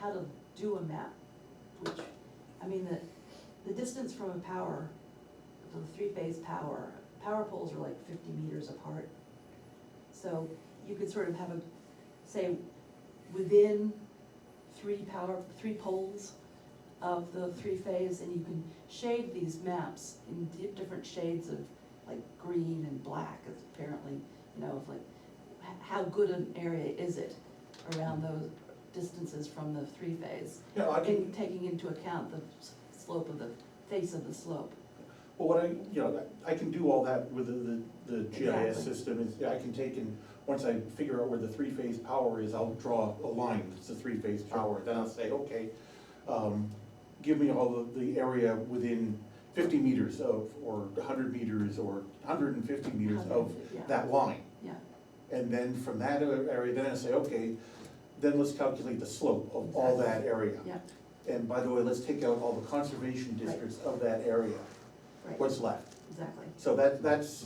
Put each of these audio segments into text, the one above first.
how to do a map, which, I mean, the, the distance from a power, from a three-phase power, power poles are like fifty meters apart. So you could sort of have a, say, within three power, three poles of the three-phase, and you can shade these maps in di- different shades of, like, green and black, is apparently, you know, of like, h- how good an area is it around those distances from the three-phase? Yeah, I And can, taking into account the s- slope of the, face of the slope. well, what I, you know, I can do all that with the, the, the GIS Exactly. system, is, I can take and, once I figure out where the three-phase power is, I'll draw a line, that's the three-phase power, then I'll say, okay, um, give me all of the area within fifty meters of, or hundred meters, or hundred and fifty meters of Yeah. that line. Yeah, And then from that area, then I say, okay, then let's calculate the slope of all that area. yeah, And by the way, let's take out all the conservation districts of that area, right, what's left. exactly. So that, that's,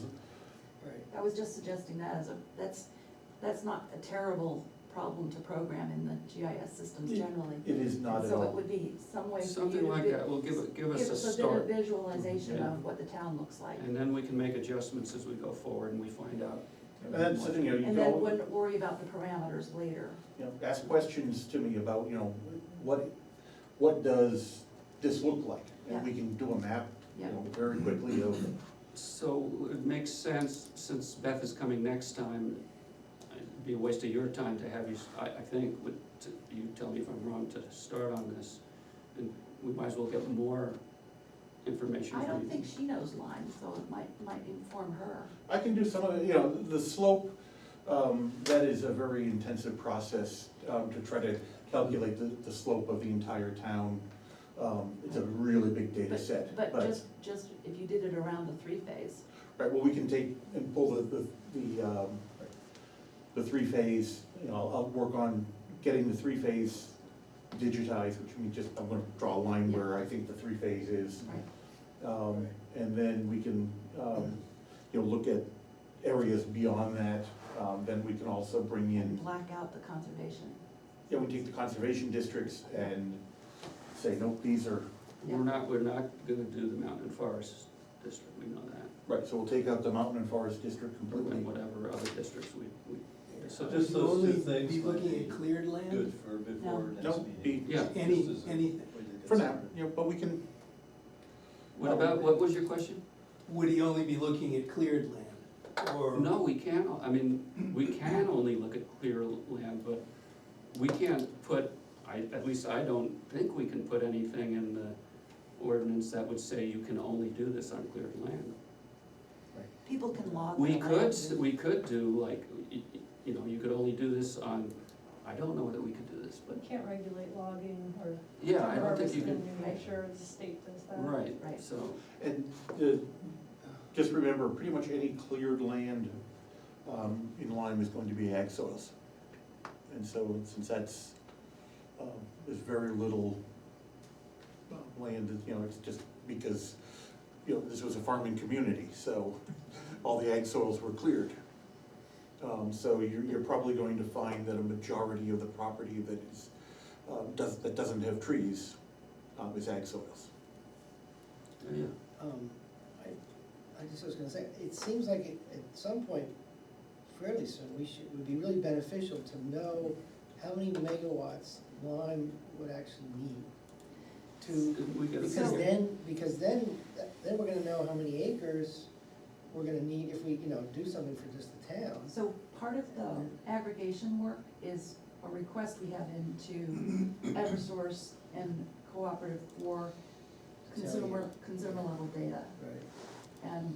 Right. I was just suggesting that as a, that's, that's not a terrible problem to program in the GIS systems Yeah. generally. it is not And at So it all. would be some way for you to. Something like vi- that will give, it- give us Give a us a bit of start, visualization Yeah. of what the town looks like. and then we can make adjustments as we go forward and we find out. And that's, the thing, you know, you And then go, wouldn't worry about the parameters later. you know, ask questions to me about, you know, what, what does this look like? And we can do a map, you know, very quickly of, So it makes sense, since Beth is coming next time, it'd be a waste of your time to have you, s- I, I think, would, to- you tell me if I'm wrong, to start on this. And we might as well get more information I from you. don't think she knows lines, so it might, might inform her. I can do some of it, you know, the slope, um, that is a very intensive process, um, to try to calculate the, the slope of the entire town. Um, it's a really big data But- set, But just, just if you did it around the three-phase, Right, well, we can take and pull the, the, the, um, the three-phase, you know, I'll, I'll work on getting the three-phase digitized, which means just, I'm gonna draw a line where I think the three-phase is. right? Um, and then we can, um, you know, look at areas beyond that, um, then we can also bring in, And black out the conservation. yeah, we take the conservation districts and say, nope, these are, Yeah. We're not, we're not gonna do the mountain and forest district, we know that, right, so we'll take out the mountain and forest district completely. and whatever other districts we, we. So just those two things Be would looking be at cleared Good land, for before next meeting. Nope, be- Yeah. any, Just as a- anything. For now, you know, but we can, What about, what was your question? Would he only be looking at cleared land, or? No, we can't, I mean, we can only look at clear land, but we can't put, I, at least I don't think we can put anything in the ordinance that would say you can only do this on cleared land. People can log. We their could, land. s- we could do like, y- y- you know, you could only do this on, I don't know that we could do this, but, We can't regulate logging or yeah, I don't think you harvesting can, in New Hampshire, the state does Uh, that. right, Right. so, And the, just remember, pretty much any cleared land um, in Lyme is going to be ag soils. And so, since that's, um, there's very little uh, land, that, you know, it's just because, you know, this was a farming community, so all the ag soils were cleared. Um, So you're, you're probably going to find that a majority of the property that is, um, does, that doesn't have trees um, is ag soils. yeah. Um, I, I just was gonna say, it seems like at, at some point, fairly soon, we should, it would be really beneficial to know how many megawatts Lime would actually need to, We gotta because figure- then, because then, then we're gonna know how many acres we're gonna need if we, you know, do something for just the town. So part of the aggregation work is a request we have into Eversource and Cooperative for consumer, consumer level data. Right. And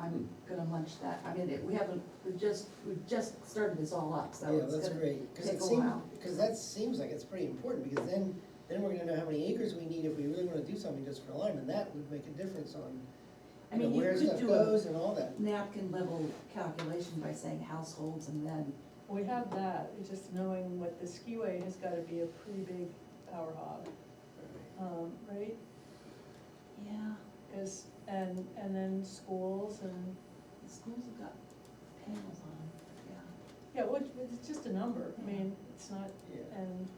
I'm gonna munch that, I mean, it- we haven't, we've just, we've just started this all up, so Yeah, it's that's gonna great, cause take it a seems, while. cause that seems like it's pretty important, because then, then we're gonna know how many acres we need if we really wanna do something just for Lyme, and that would make a difference on, I you know, mean, you where could stuff do a goes and all that. napkin level calculation by saying households and then, We have that, it's just knowing what the skiway has gotta be a pretty big power hog, um, right? yeah, Is, and, and then schools and, the schools have got panels on, yeah. yeah, what, it's just a number, I mean, it's not, Yeah. and